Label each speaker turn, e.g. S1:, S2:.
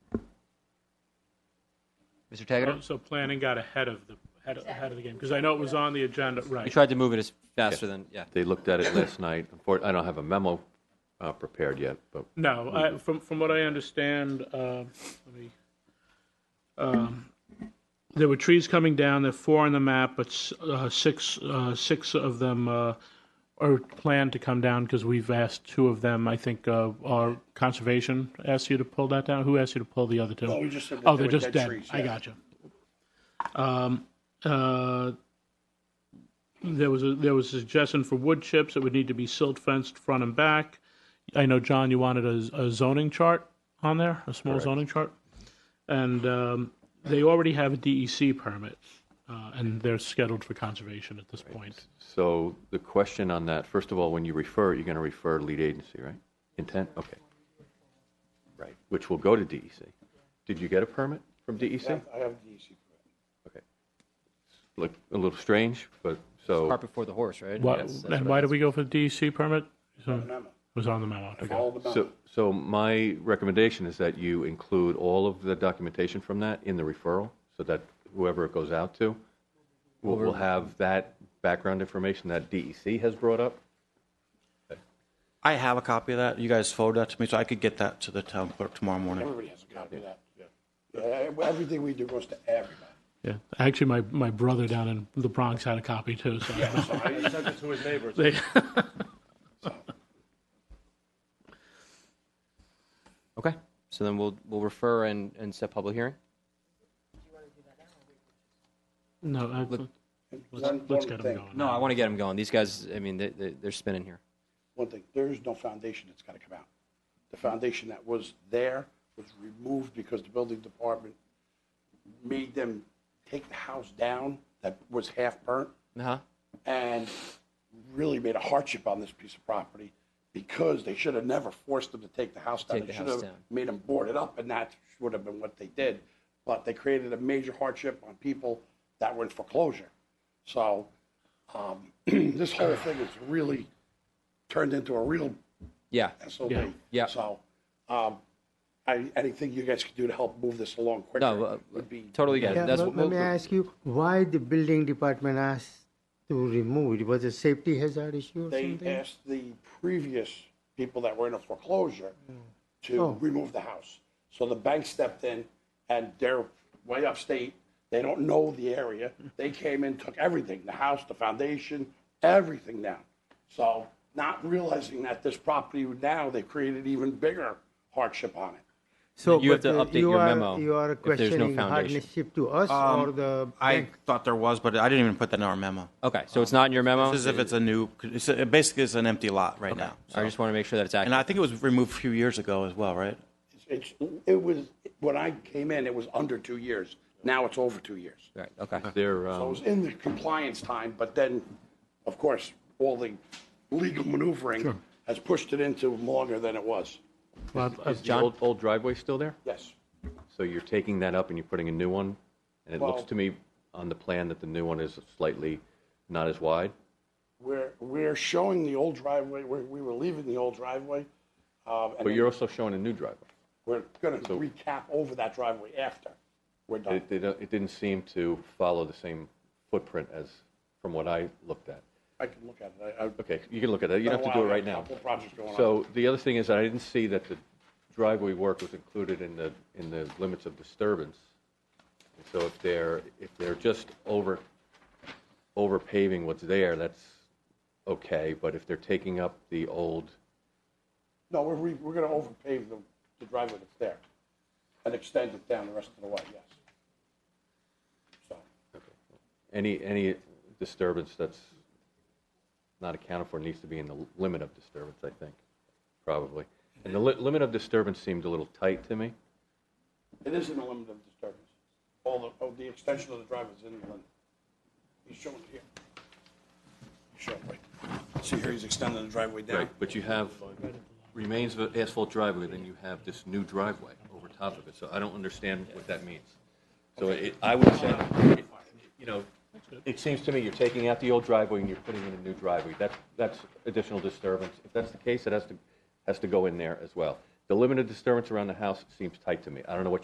S1: Mr. Taggart?
S2: So planning got ahead of the, ahead of- ahead of the game, because I know it was on the agenda,
S1: We
S2: right.
S1: tried to move it as faster than, yeah.
S3: They looked at it last night. Unfor- I don't have a memo uh, prepared yet, but
S2: No, I, from, from what I understand, uh, let me, um, there were trees coming down, there are four on the map, but s- uh, six, uh, six of them uh, are planned to come down, because we've asked two of them, I think, uh, our conservation asked you to pull that down? Who asked you to pull the other two?
S4: we just said that
S2: Oh,
S4: they
S2: they're
S4: were
S2: just
S4: dead
S2: dead,
S4: trees,
S2: I
S4: yeah.
S2: got you. Um, uh, There was, a there was a suggestion for wood chips, it would need to be silt fenced front and back. I know, John, you wanted a, a zoning chart on there, a small zoning chart. And um, they already have a DEC permit, uh, and they're scheduled for conservation at this point.
S3: so the question on that, first of all, when you refer, you're going to refer lead agency, right? Intent, okay. Right, which will go to DEC. Did you get a permit from E DEC?
S4: I have the E easy.
S3: Okay. Look, a little strange, but so,
S1: Cart before the horse, right?
S2: Why,
S1: Yes, that's
S2: and
S1: what
S2: why
S1: I-
S2: did we go for the DEC permit? It
S4: memo.
S2: was on the memo. okay.
S4: All the memo.
S3: so, so my recommendation is that you include all of the documentation from that in the referral, so that whoever it goes out to will, will have that background information that DEC has brought up.
S5: I have a copy of that. You guys forward that to me, so I could get that to the town clerk tomorrow morning.
S4: Everybody has a copy of that. Yeah, everything we do goes to everybody.
S2: Yeah, actually, my, my brother down in the Bronx had a copy too, so.
S4: So I sent it to his neighbors.
S2: They-
S1: Okay, so then we'll, we'll refer and, and set public hearing?
S2: No, I-
S4: One,
S2: let's,
S4: one
S2: let's get them
S4: thing,
S2: going.
S1: No, I want to get them going. These guys, I mean, they, they, they're spinning here.
S4: one thing, there is no foundation that's gotta come out. The foundation that was there was removed because the building department made them take the house down that was half burnt
S1: Uh-huh.
S4: and really made a hardship on this piece of property because they should have never forced them to take the house down.
S1: Take
S4: They
S1: the
S4: should
S1: house
S4: have
S1: down.
S4: made them board it up, and that would have been what they did. But they created a major hardship on people that were in foreclosure. So um, this whole thing is really turned into a real
S1: Yeah,
S4: SOB.
S2: Yeah.
S1: Yeah.
S4: So um, I, anything you guys could do to help move this along
S1: no,
S4: quicker
S1: uh,
S4: would be.
S1: totally get
S6: Yeah,
S1: it. That's
S6: but
S1: what
S6: Let
S1: we'll-
S6: me ask you, why the building department asked to remove it? Was it safety hazard issue or
S4: They
S6: something?
S4: asked the previous people that were in a foreclosure to remove the house. So the bank stepped in and they're way upstate. They don't know the area. They came in, took everything, the house, the foundation, everything down. So not realizing that this property now, they've created even bigger hardship on it.
S6: So,
S1: you have
S6: but,
S1: to
S6: uh,
S1: update
S6: you
S1: your
S6: are-
S1: memo
S6: You are
S1: if there's no
S6: questioning
S1: foundation.
S6: hardship to us
S4: Um,
S6: or the
S5: I
S6: bank?
S5: thought there was, but I didn't even put that in our memo.
S1: Okay, so it's not in your memo?
S5: It's as if it's a new, it's a- it basically is an empty lot right now.
S1: I just want to make sure that it's
S5: And
S1: accurate.
S5: I think it was removed a few years ago as well, right?
S4: It's, it was, when I came in, it was under two years. Now it's over two years.
S1: Right, okay.
S3: They're,
S4: So it
S3: um,
S4: was in the compliance time, but then, of course, all the legal maneuvering has pushed it into longer than it was.
S2: Well, I-
S3: is the old, old driveway still there?
S4: Yes.
S3: So you're taking that up and you're putting a new one? And it looks
S4: Well-
S3: to me on the plan that the new one is slightly not as wide?
S4: We're, we're showing the old driveway, we we were leaving the old driveway. um, And
S3: But you're
S4: then
S3: also showing a new driveway.
S4: we're going to recap over that driveway after we're done.
S3: It, they don't- it didn't seem to follow the same footprint as, from what I looked at.
S4: I can look at it. I- I-
S3: Okay, you can look at that, you don't have to
S4: Well,
S3: do it
S4: I
S3: right
S4: got a
S3: now.
S4: couple projects going on.
S3: So the other thing is, I didn't see that the driveway work was included in the, in the limits of disturbance. And So if they're, if they're just over, over paving what's there, that's okay, but if they're taking up the old,
S4: No, we're, re- we're going to overpave the the driveway that's there and extend it down the rest of the way, yes. So,
S3: any, any disturbance that's not accounted for needs to be in the limit of disturbance, I think, probably. And the li- limit of disturbance seemed a little tight to me.
S4: It is in the limit of disturbance. All the, oh, the extension of the driveway is in the limit. He's showing it here. He's showing, right. See here, he's extending the driveway down.
S3: Right, but you have remains of an asphalt driveway, then you have this new driveway over top of it, so I don't understand what that means. So it, I would say, it- you know, it seems to me you're taking out the old driveway and you're putting in a new driveway, that's, that's additional disturbance. If that's the case, it has to, has to go in there as well. The limit of disturbance around the house seems tight to me, I don't know what